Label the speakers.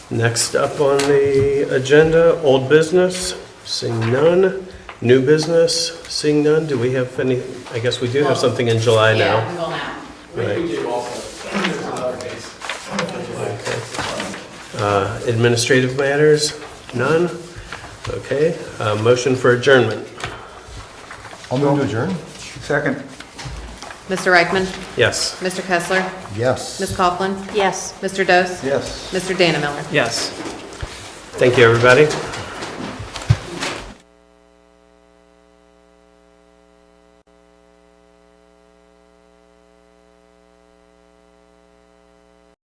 Speaker 1: Next up on the agenda, old business, seeing none. New business, seeing none. Do we have any, I guess we do have something in July
Speaker 2: Yeah,
Speaker 1: now.
Speaker 2: we will now.
Speaker 1: Right.
Speaker 3: We do also, there's another case.
Speaker 1: Uh, Administrative matters, none. Okay, uh, motion for adjournment.
Speaker 4: I'll move to adjourn.
Speaker 5: Second,
Speaker 6: Mr. Reichman?
Speaker 1: Yes.
Speaker 6: Mr. Kessler?
Speaker 4: Yes.
Speaker 6: Ms. Coughlin? Yes. Mr. Dose?
Speaker 4: Yes.
Speaker 6: Mr. Dana Miller?
Speaker 3: Yes.
Speaker 1: Thank you, everybody.